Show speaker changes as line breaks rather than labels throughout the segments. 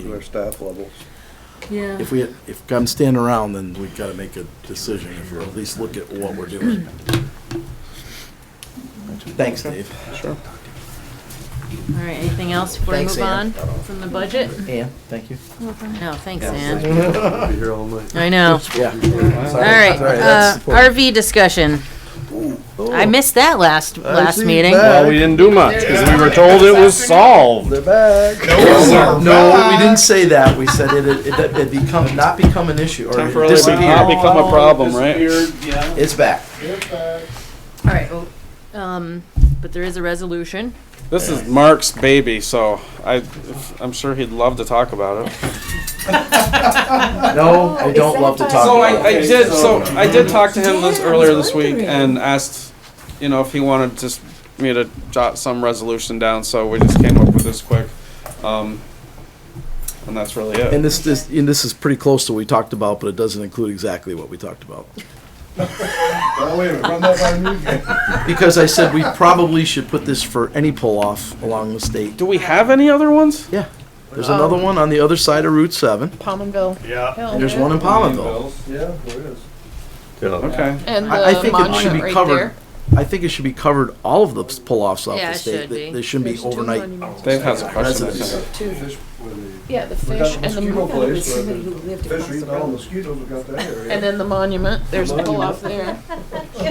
their staff levels.
Yeah.
If we, if I'm standing around, then we've got to make a decision, or at least look at what we're doing. Thanks, Dave.
Sure.
All right, anything else before we
Thanks,
move on
Ann.
from the budget?
Ann, thank you.
No, thanks,
Yeah,
Ann.
I'll be here all night.
I know.
Yeah.
All right,
Sorry, that's
uh,
important.
RV discussion. I missed that last, last
see
meeting.
that.
Well, we didn't do much because we were told it was solved.
They're back.
No, we didn't say that. We said it, it, it it'd become, not become an issue, or it
Temporarily be- not
disappear.
become a problem, right?
It's back.
All right, well, um, but there is a resolution.
This is Mark's baby, so I, I'm sure he'd love to talk about it.
No, I don't love to talk
So I,
about
I
it.
did, so I did talk to him this, earlier this week and asked, you know, if he wanted just me to jot some resolution down, so we just came up with this quick. Um, and that's really it.
And this, this, and this is pretty close to what we talked about, but it doesn't include exactly what we talked about.
Oh, wait a minute, run that by me again.
Because I said we probably should put this for any pull-off along the state.
Do we have any other ones?
Yeah, there's another one on the other side of Route seven.
Palmerville.
Yeah.
and There's one in Palmerville.
Yeah, there is.
Okay.
And
I, I
the
think it should
monument
be
right
covered.
there.
I think it should be covered, all of the pull-offs off
Yeah,
the
it
state.
should
They-
be.
They shouldn't be
There's two
overnight.
monuments.
Dave has a question. I
Residents.
think.
Fish with
Yeah, the
the, we got
fish
a
and the,
mosquito
mo-
place where the fish eating all the mosquitoes, we got that area.
and then the monument, there's a pull off there.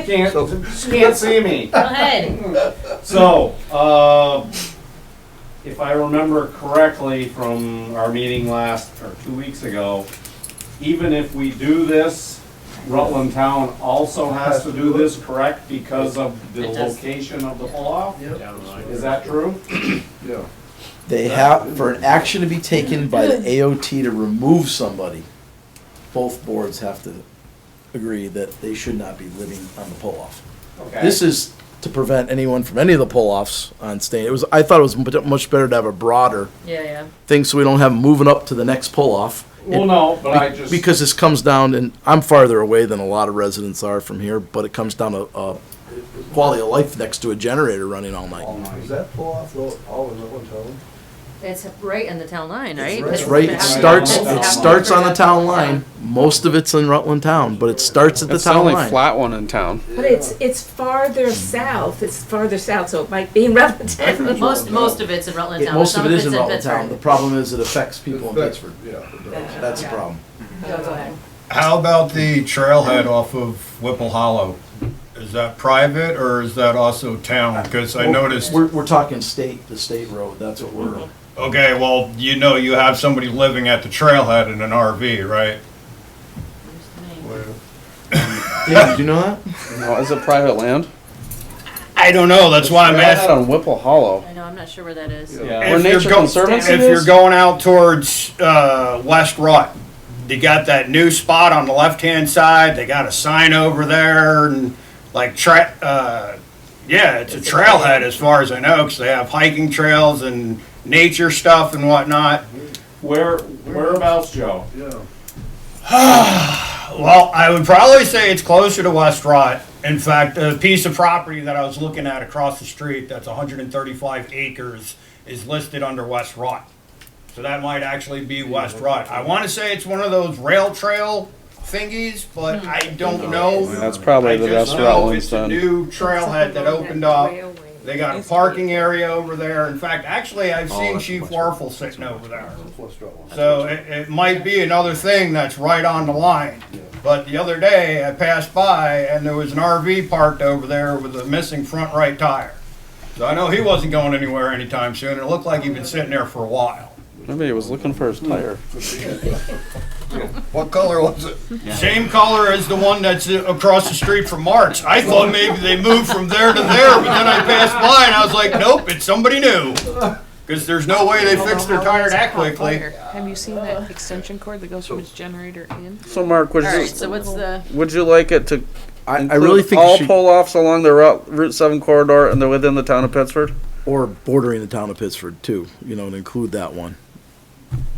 Can't see me.
Go ahead.
So, uh, if I remember correctly from our meeting last, or two weeks ago, even if we do this, Rutland Town also has to do this, correct? Because of the
It does.
location of the pull-off?
Yep.
Is that true?
Yeah.
They have, for an action to be taken by the AOT to remove somebody, both boards have to agree that they should not be living on the pull-off.
Okay.
This is to prevent anyone from any of the pull-offs on state. It was, I thought it was mu- much better to have a broader
Yeah, yeah.
thing so we don't have them moving up to the next pull-off.
Well, no, but I
Be-
just.
Because this comes down, and I'm farther away than a lot of residents are from here, but it comes down to, uh, quality of life next to a generator running all night.
All night.
Is that pull off, though, all in that one town?
It's right in the town line, right?
right-
It's right, it starts,
That's
it
how-
starts on the town line, most of it's in Rutland Town, but it starts at the
It's the
town
only
line.
flat one in town.
But it's, it's farther south, it's farther south, so it might be in Rutland.
Most, most of it's in Rutland
It-
Town. but
Most of
some
it is in
it's
Rutland Town, the
Pittsburgh.
problem is it affects people in
That's-
Pittsburgh,
Yeah.
that's the problem.
Go, go ahead.
How about the trailhead off of Whipple Hollow? Is that private or is that also town? Because I noticed,
We're, we're talking state, the state road, that's what we're,
Mm-hmm.
okay, well, you know you have somebody living at the trailhead in an RV, right?
Dave, do you know that?
No, is it private land?
I don't know, that's why I'm
Right out
asking.
on Whipple Hollow.
I know, I'm not sure where that is.
Yeah. Where
If you're
Nature
go-
Conservancy
If you're
is?
going out towards, uh, West Rut, they got that new spot on the left-hand side, they got a sign over there and like tra, uh, yeah, it's a trailhead as far as I know, because they have hiking trails and nature stuff and whatnot.
Where, whereabouts, Joe?
Yeah.
Well, I would probably say it's closer to West Rot. In fact, a piece of property that I was looking at across the street that's 135 acres is listed under West Rot. So that might actually be West Rot. I want to say it's one of those rail trail thingies, but I don't know.
That's probably
I
the
just
best
know
Rutland's
it's a
done.
new trailhead that opened up. They got a parking area over there. In fact, actually,
Oh,
I've seen Chief Warfel sitting over there.
Let's draw one.
So it, it might be another thing that's right on the line. But the other day, I passed by and there was an RV parked over there with a missing front right tire. So I know he wasn't going anywhere anytime soon. It looked like he'd been sitting there for a while.
Maybe he was looking for his tire.
What color was it? Same color as the one that's uh, across the street from Mark's. I thought maybe they moved from there to there, but then I passed by and I was like, nope, it's somebody new. Because there's no way they fixed their tire that quickly.
Have you seen that extension cord that goes from its generator in?
So Mark, would
All
you,
right, so what's the,
would you like it to
I, I
include
really think
all
it should,
pull-offs along the Route, Route Seven corridor and they're within the town of Pittsford?
or bordering the town of Pittsford too, you know, and include that one.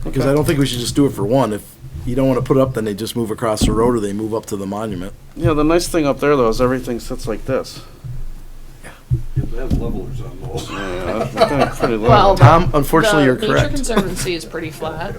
Because I don't think we should just do it for one, if you don't wanna put it up, then they just move across the road or they move up to the monument.
Yeah, the nice thing up there though is everything sits like this.
Yeah, They have levelers on those.
Yeah, that's pretty low.
Well,
Tom, unfortunately, you're
The Nature
correct.
Conservancy is pretty flat.